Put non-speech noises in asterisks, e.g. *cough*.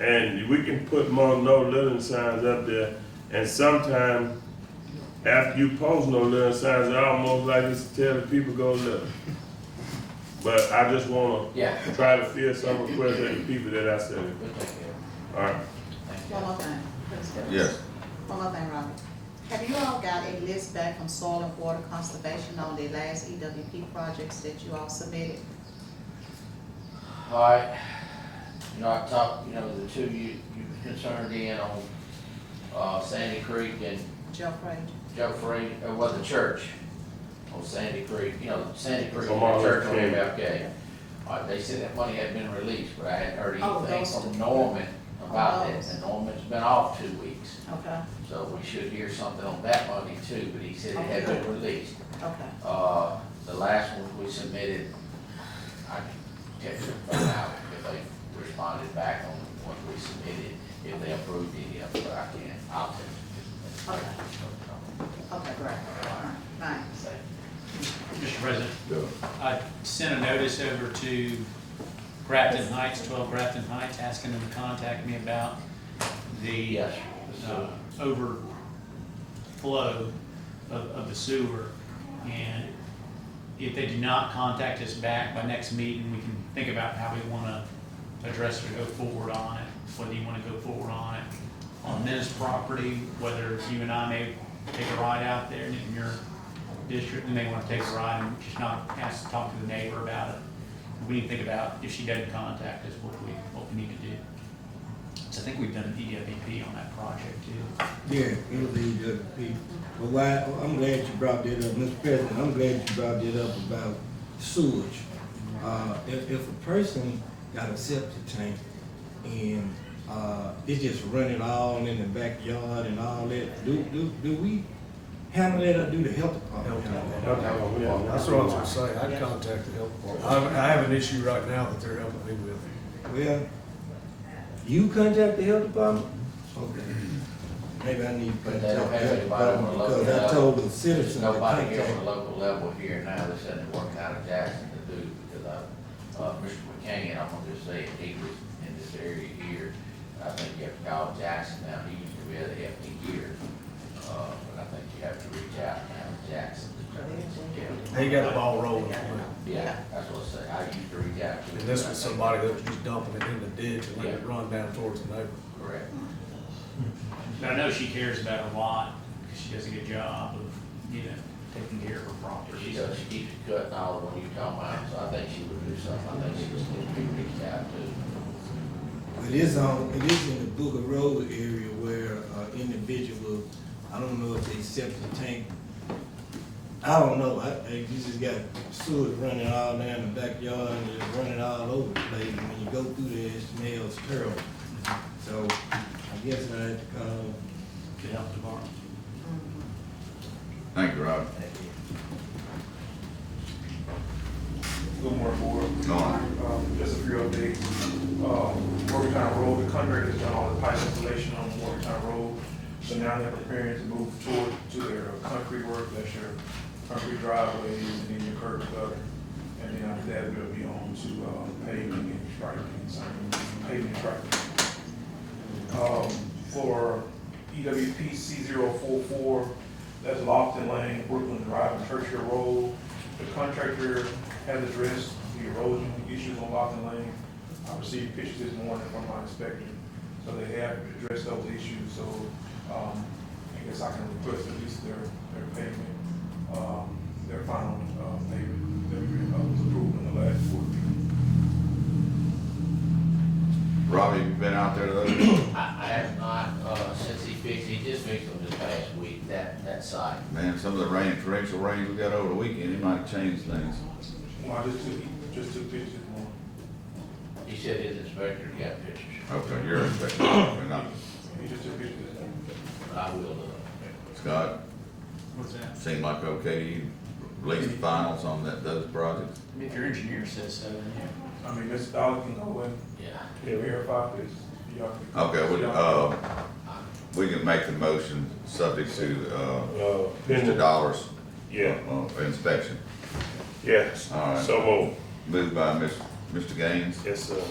And we can put more no littering signs up there, and sometimes after you post no littering signs, it almost like it's telling people go litter. But I just wanna Yeah. try to fill some requests of the people that I said, We'll take care of alright, it. One more thing, Chris. Yes. One more thing, Robert. Have you all got a list back from Soil and Water Conservation on the last EWP projects that you all submitted? All right, you know, I talked, you know, the two you, you concerned in on, uh, Sandy Creek and Jeff Page? Joe Free, or was the church on Sandy Creek, you know, Sandy Creek, and Tomorrow, the church on okay. MFK. Uh, they said that money had been released, but I hadn't heard Oh, anything those from two. Norman about Oh, that, those. and Norman's been off two weeks. Okay, So we should hear something on that money too, but he said it had been released. okay. Uh, the last one we submitted, I texted them out if they responded back on what we submitted, if they approved any of it, but I can't, I'll text them. Okay. Okay, great. All right, Thanks. Thank you. Mr. President, Yeah. I sent a notice over to Grafton Heights, twelve Grafton Heights, asking them to contact me about the Yes. uh, overflow of, of the sewer. And if they do not contact us back by next meeting, we can think about how we want to address or go forward on it, whether you want to go forward on it on this property, whether you and I may take a ride out there and in your district, you may want to take a ride and just not ask, talk to the neighbor about it. We need to think about if she doesn't contact us, what we, what we need to do. So I think we've done an EWP on that project too. Yeah, it'll be good to people. But why, I'm glad you brought that up, Mr. President, I'm glad you brought that up about sewage. Uh, if, if a person got a septic tank and, uh, it just running all in the backyard and all that, do, do, do we handle that or do the health department handle that? Yeah, that's what I was gonna say, I'd contact the health department. I, I have an issue right now that they're helping me with. Well, you contact the health department? Okay. Maybe I need Mm-hmm. to But they don't contact the have health anybody on the department local because I level. told the There's citizen to nobody here on contact. the local level here now that's in the work out of Jackson to do, because I, uh, Mr. McCain, I'm gonna just say, he was in this area here. I think you have to call Jackson now, he used to be at the FD here, uh, but I think you have to reach out now to Jackson. to try to- yeah. They got the ball rolling. And Yeah, that's what I say, I used to reach out to. this was somebody that was just dumping it in the ditch and letting it run down towards the neighbor. Correct. But I know she cares about it a lot, because she does a good job of, you know, taking care of her property. She does, she keeps it cut and all the one you talking about, so I think she would do something, I think she was gonna be reached out to. It is on, it is in the Booker Road area where uh, individual, I don't know if they septic tank, I don't know, I, I- you just got sewage running all down the backyard and it's running all over the place. And when you go through there, it smells terrible. So I guess I had to call To help the bar. Thank you, Rob. Good morning, board. Norm. Um, Just a few updates. Um, Morgantown Road, the contractor has done all the pipe installation on Morgantown Road. So now they're preparing to move toward, to their concrete work, that's your concrete driveways and then your curb gutter. And then after that, we'll be on to uh, paving and striping, so paving and striping um, for EWP C 44 that's Lofton Lane, Brooklyn Drive, and Churchill Road. The contractor has addressed the erosion issues on Lofton Lane. I received pictures this morning from my inspector, so they have addressed those issues, so, um, I guess I can request at least their, their payment, um, their final, uh, payment that we, uh, was approved in the last board meeting. Robbie, you been out there lately? I, I have not, uh, since he fixed, he just fixed them this past week, that, that site. *coughs* Man, some of the rain, torrential rains we got over the weekend, it might change things. Well, I just took, just took pictures this morning. He said his inspector got pictures, Okay, you're expecting, we're not. He just took pictures this morning. but I will, uh, Scott, What's that? seemed like okay, to you released the finals on that, those projects? I mean, if your engineer says so, then yeah. I mean, Mr. Dollar can go and yeah. verify this. Y'all can- Okay, we, Y'all- uh, we can make the motion subject to, uh, uh, Mr. pending, Dollars. yeah, uh, inspection. yes, All right. so move, Moved by Mr. Mr. Gaines, yes, sir.